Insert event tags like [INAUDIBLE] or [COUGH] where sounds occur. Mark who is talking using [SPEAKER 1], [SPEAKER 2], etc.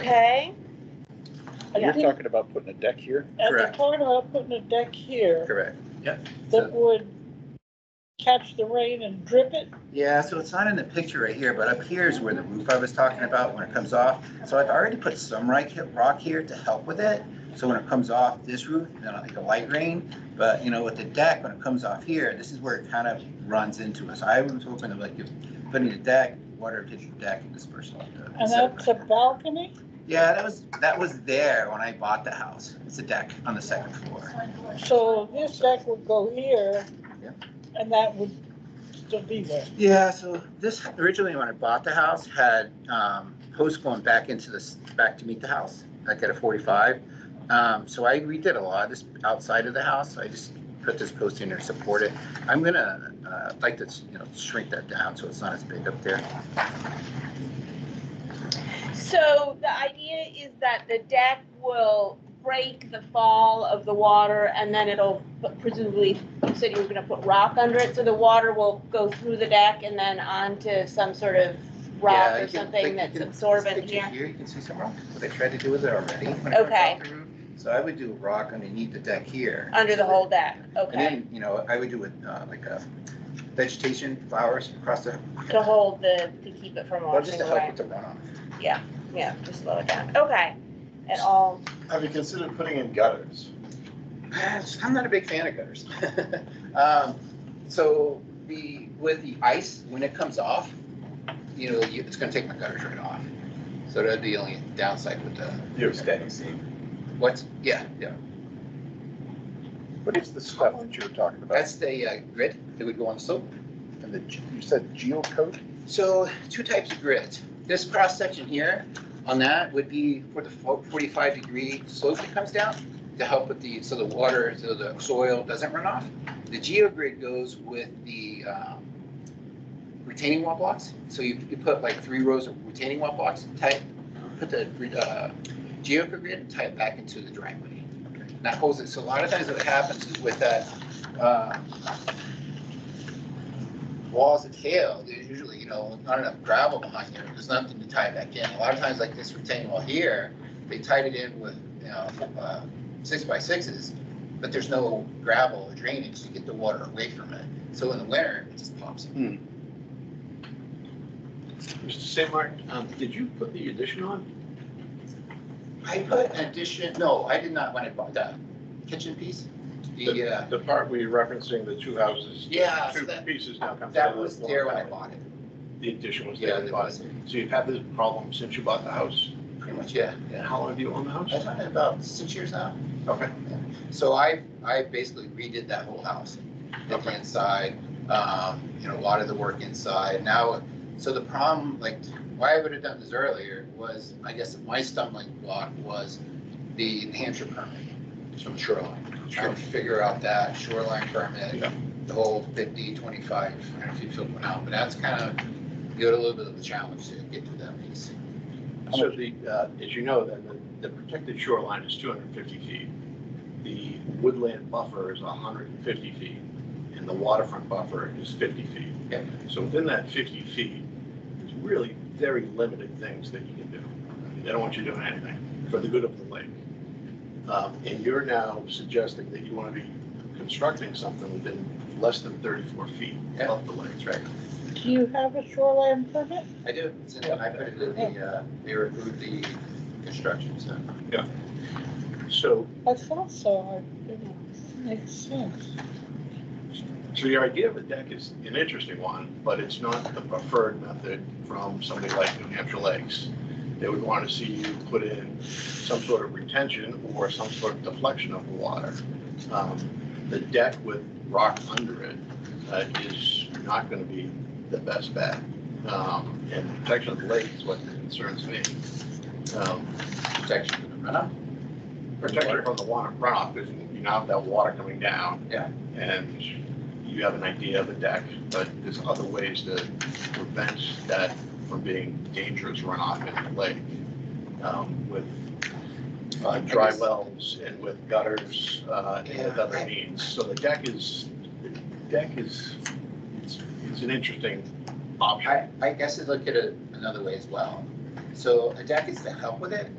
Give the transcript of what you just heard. [SPEAKER 1] okay?
[SPEAKER 2] And
[SPEAKER 1] Yeah.
[SPEAKER 2] you're talking about putting a deck here?
[SPEAKER 3] And they're
[SPEAKER 4] Correct.
[SPEAKER 3] talking about putting a deck here
[SPEAKER 4] Correct.
[SPEAKER 3] that would catch the rain and drip it.
[SPEAKER 4] Yeah, so it's not in the picture right here, but up here is where the roof I was talking about when it comes off. So I've already put some right he- rock here to help with it. So when it comes off this roof, then I'll take a light rain. But you know, with the deck, when it comes off here, this is where it kind of runs into us. I was hoping that like if putting a deck, water would hit the deck and disperse. it.
[SPEAKER 3] And that's a balcony?
[SPEAKER 4] Yeah, that was, that was there when I bought the house. It's a deck on the second floor.
[SPEAKER 3] So this deck would go here
[SPEAKER 4] Yeah.
[SPEAKER 3] and that would still be there.
[SPEAKER 4] Yeah, so this originally when I bought the house had um, posts going back into this back to meet the house, like at a 45. Um, so I redid a lot of this outside of the house. So I just put this post in there, to support it. I'm gonna uh, like to you know shrink that down so it's not as big up there.
[SPEAKER 1] So the idea is that the deck will break the fall of the water and then it'll presumably, you said you were gonna put rock under it, so the water will go through the deck and then onto some sort of rock
[SPEAKER 4] Yeah, you
[SPEAKER 1] or
[SPEAKER 4] can-
[SPEAKER 1] something
[SPEAKER 4] like,
[SPEAKER 1] that's
[SPEAKER 4] you can-
[SPEAKER 1] absorbent
[SPEAKER 4] stick it
[SPEAKER 1] here.
[SPEAKER 4] You can see some rock. What they tried to do with it already. when it comes
[SPEAKER 1] Okay.
[SPEAKER 4] off the roof. So I would do rock underneath the deck here.
[SPEAKER 1] Under the whole deck,
[SPEAKER 4] And
[SPEAKER 1] okay,
[SPEAKER 4] then you know I would do with uh, like a vegetation, flowers across the
[SPEAKER 1] to hold the, to keep it from
[SPEAKER 4] Well, just
[SPEAKER 1] washing
[SPEAKER 4] to help
[SPEAKER 1] away.
[SPEAKER 4] with the runoff.
[SPEAKER 1] Yeah, just slow it down, okay. And all,
[SPEAKER 2] Have you considered putting in gutters?
[SPEAKER 4] [SIGHS] I'm not a big fan of gutters. [LAUGHS] Um, So the, with the ice, when it comes off, you know, you- it's gonna take my gutters right off. So that'd be the only downside with the,
[SPEAKER 5] You have standing seam.
[SPEAKER 4] what's, yeah, yeah.
[SPEAKER 2] What is the stuff that you were talking about?
[SPEAKER 4] That's the uh, grit that would go on the slope.
[SPEAKER 2] And the, ge- you said geocoat?
[SPEAKER 4] So two types of grit. This cross section here on that would be for the fo- 45 degree slope that comes down to help with the, so the water, so the soil doesn't run off. The geogrid goes with the um, retaining wall blocks. So you, you put like three rows of retaining wall blocks, tie, put the uh, geogrid and tie it back into the driveway. And That holds it. So a lot of times what happens is with that uh, walls of hail, there's usually, you know, not enough gravel behind there, there's nothing to tie it back in. A lot of times like this retaining wall here, they tied it in with, you know, uh, six by sixes, but there's no gravel or drainage to get the water away from it. So in the winter, it just pops.
[SPEAKER 5] Mr. Samark, um, did you put the addition on?
[SPEAKER 4] I put an addition, no, I did not want to buy the kitchen piece. The, uh,
[SPEAKER 5] The part where you're referencing the two houses?
[SPEAKER 4] Yeah, so
[SPEAKER 5] Two
[SPEAKER 4] that-
[SPEAKER 5] pieces now come together.
[SPEAKER 4] that was there when I bought it.
[SPEAKER 5] The addition was
[SPEAKER 4] Yeah,
[SPEAKER 5] there. when
[SPEAKER 4] that
[SPEAKER 5] you bought
[SPEAKER 4] was
[SPEAKER 5] it. So you've had this problem since you bought the house?
[SPEAKER 4] pretty much, yeah,
[SPEAKER 5] And
[SPEAKER 4] yeah.
[SPEAKER 5] how long have you owned the house?
[SPEAKER 4] I've had it about six years now.
[SPEAKER 5] Okay.
[SPEAKER 4] So I, I basically redid that whole house, did the inside, um, you know, a lot of the work inside. Now, so the problem, like, why I would have done this earlier was, I guess, my stumbling block was the New Hampshire permit from shoreline. Trying to figure out that shoreline permit,
[SPEAKER 5] Yeah.
[SPEAKER 4] the whole 50, 25, I don't know if you filled one out, but that's kind of, you had a little bit of a challenge to get through that piece.
[SPEAKER 5] So the, uh, as you know, then the, the protected shoreline is two hundred and fifty feet. The woodland buffer is hundred and fifty feet, and the waterfront buffer is fifty feet.
[SPEAKER 4] Yeah.
[SPEAKER 5] So within that fifty feet, there's really very limited things that you can do. I mean, They don't want you doing anything for the good of the lake. Um, and you're now suggesting that you want to be constructing something within less than thirty-four feet
[SPEAKER 4] Yeah.
[SPEAKER 5] of the lake.
[SPEAKER 4] That's right.
[SPEAKER 3] Do you have a shoreline permit?
[SPEAKER 4] I do, It's in- I put it in the, uh, they removed the construction, so.
[SPEAKER 5] So
[SPEAKER 3] I thought so. I- you know, Makes sense.
[SPEAKER 5] So your idea of a deck is an interesting one, but it's not the preferred method from somebody like New Hampshire Lakes. They would want to see you put in some sort of retention or some sort of deflection of the water. Um, The deck with rock under it uh, is not going to be the best bet. Um, And protection of the lake is what concerns me. Um,
[SPEAKER 4] protection for the runoff.
[SPEAKER 5] Protection from the water runoff, because you now have that water coming down.
[SPEAKER 4] Yeah.
[SPEAKER 5] And you have an idea of a deck, but there's other ways to prevent that from being dangerous runoff in the lake. um, With uh, dry wells and with gutters uh, and with other means. So the deck is, the deck is, it's it's an interesting option.
[SPEAKER 4] I, I guess I look at it another way as well. So a deck is to help with it,